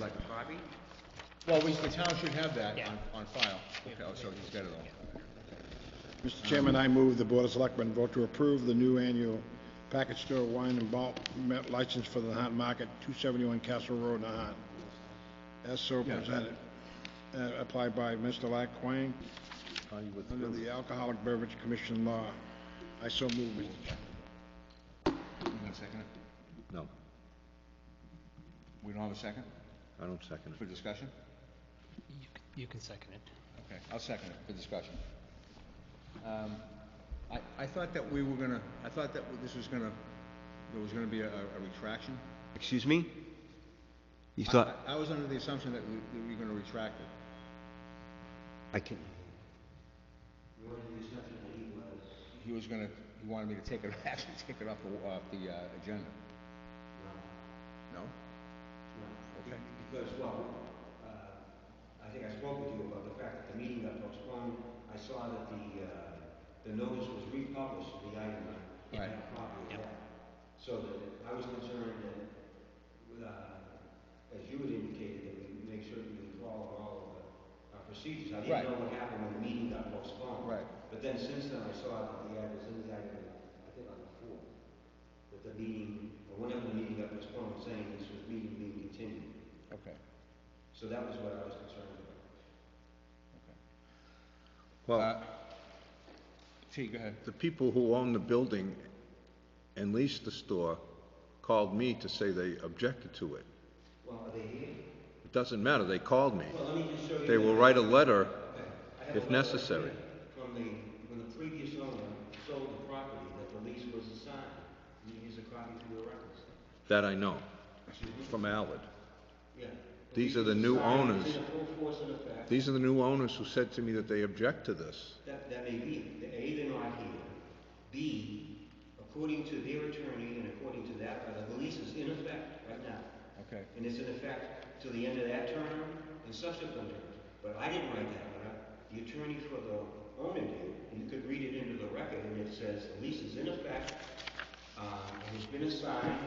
a copy? Well, we, the town should have that Yeah. on, on file. Okay, oh, so he's got it all. Mr. Chairman, I move the Board of Selectmen vote to approve the new annual package store wine and malt me- license for the Nahat Market, 271 Castle Road, Nahat, as so presented, uh, applied by Mr. Lack Quang under the Alcoholic Beverage Commission law. I so move, Mr. Chairman. You gonna second it? No, We don't have a second I don't second for discussion? You c- You can second it. Okay, I'll second it for discussion. Um, I, I thought that we were gonna, I thought that this was gonna, there was gonna be a, a retraction. Excuse me? You I- thought, I I was under the assumption that we, that we were gonna retract it. I can, He was gonna, he wanted me to take it, actually take it off the, off the, uh, agenda. No. No? Okay. Because, well, uh, I think I spoke with you about the fact that the meeting got postponed. I saw that the, uh, the notice was republished, the item, I Right. had a copy of that. So that I was concerned that, uh, as you had indicated, that we make certain we follow all of the uh, procedures. I Right. didn't know what happened when the meeting got postponed. Right. But then since then, I saw that the ad was in the item, I think on the fourth, that the meeting, or whenever the meeting got postponed, saying this was meeting being continued. Okay. So that was what I was concerned about. well, Uh, T, go ahead. the people who own the building and lease the store called me to say they objected to it. Well, are they here? It doesn't matter, they called me. Well, let me just show you. They will write a letter if necessary. From the, when the previous owner sold the property, that the lease was assigned. And Here's a copy for your records. That I know, from Allard. Yeah. These are the lease new was signed, it's owners. in full force and effect. These are the new owners who said to me that they object to this. That, that may be, The A, they're not here. B, according to their attorney and according to that, letter, the lease is in effect right now. Okay. and it's in effect till the end of that term and subsequent terms. But I didn't write that letter, the attorney for the owner did, and you could read it into the record, and it says, the lease is in effect, um, and it's been assigned,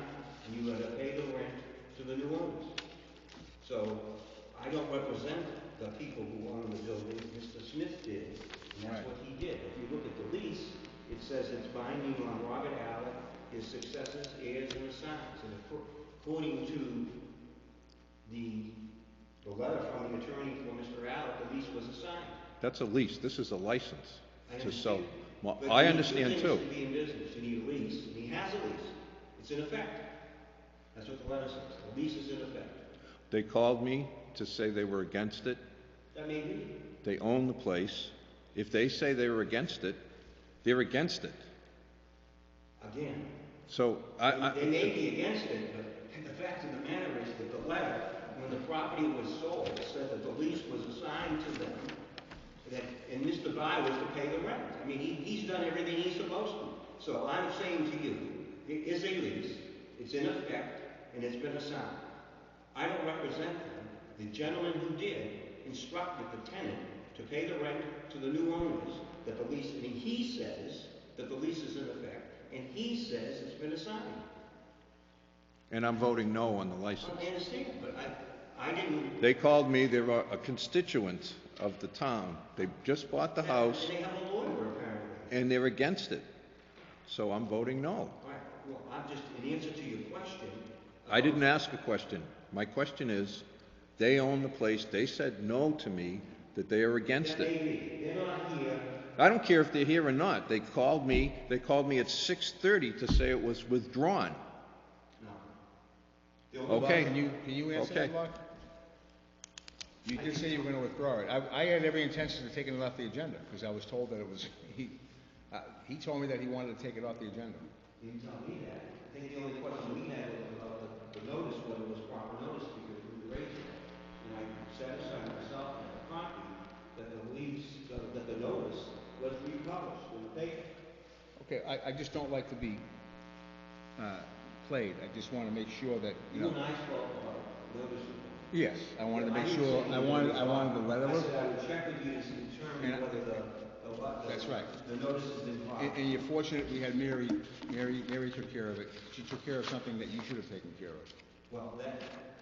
and you are to pay the rent to the new owners. So, I don't represent the people who own the building, Mr. Smith did, and that's Right. what he did. If you look at the lease, it says it's binding on Robert Allen, his successors, heirs, and assigns. And acco- according to the, the letter from the attorney for Mr. Allen, the lease was assigned. That's a lease, this is a license I to sell. understand. Well, But I you need two understand things too. to be in business, you need a lease, and he has a lease. It's in effect. That's what the letter says, the lease is in effect. They called me to say they were against it. That may be, They own the place. If they say they were against it, they're against it. again, So I, They I, may be against it, but the fact of the matter is that the letter, when the property was sold, said that the lease was assigned to them, that, and Mr. By was to pay the rent. I mean, he, he's done everything he's supposed to. So I'm saying to you, it is a lease, it's in effect, and it's been assigned. I don't represent them. The gentleman who did instructed the tenant to pay the rent to the new owners, that the lease, and he says that the lease is in effect, and he says it's been assigned. and I'm voting no on the license. I understand, but I, I didn't. They called me, they were a constituent of the town. They just bought the house They have a lawyer apparently. and they're against it. So I'm voting no. All right, well, I'm just, in answer to your question. uh, I didn't ask a question. My question is, they own the place. They said no to me, that they are against That may it. be. They're not here. I don't care if they're here or not. They called me, they called me at 6:30 to say it was withdrawn. No. Well, Okay. Can you, can you answer that, Okay. Mark? You did say you were gonna withdraw it. I, I had every intention of taking it off the agenda, because I was told that it was, he, uh, he told me that he wanted to take it off the agenda. You didn't tell me that. I think the only question we had was about the, the notice, whether it was proper notice, because we raised it. And I satisfied myself and the copy that the lease, that that the notice was republished in the paper. Okay, I, I just don't like to be, uh, played. I just wanna make sure that, you You and know. I spoke about notice. reform. Yes, I wanted to make didn't sure, say I you wanted, were I wanted the wrong. letter I of, said I would check with you to determine And I- whether the, the what, the. That's right. The notice has been and, filed. and you're fortunate we had Mary, Mary, Mary took care of it. She took care of something that you should have taken care of. Well, that,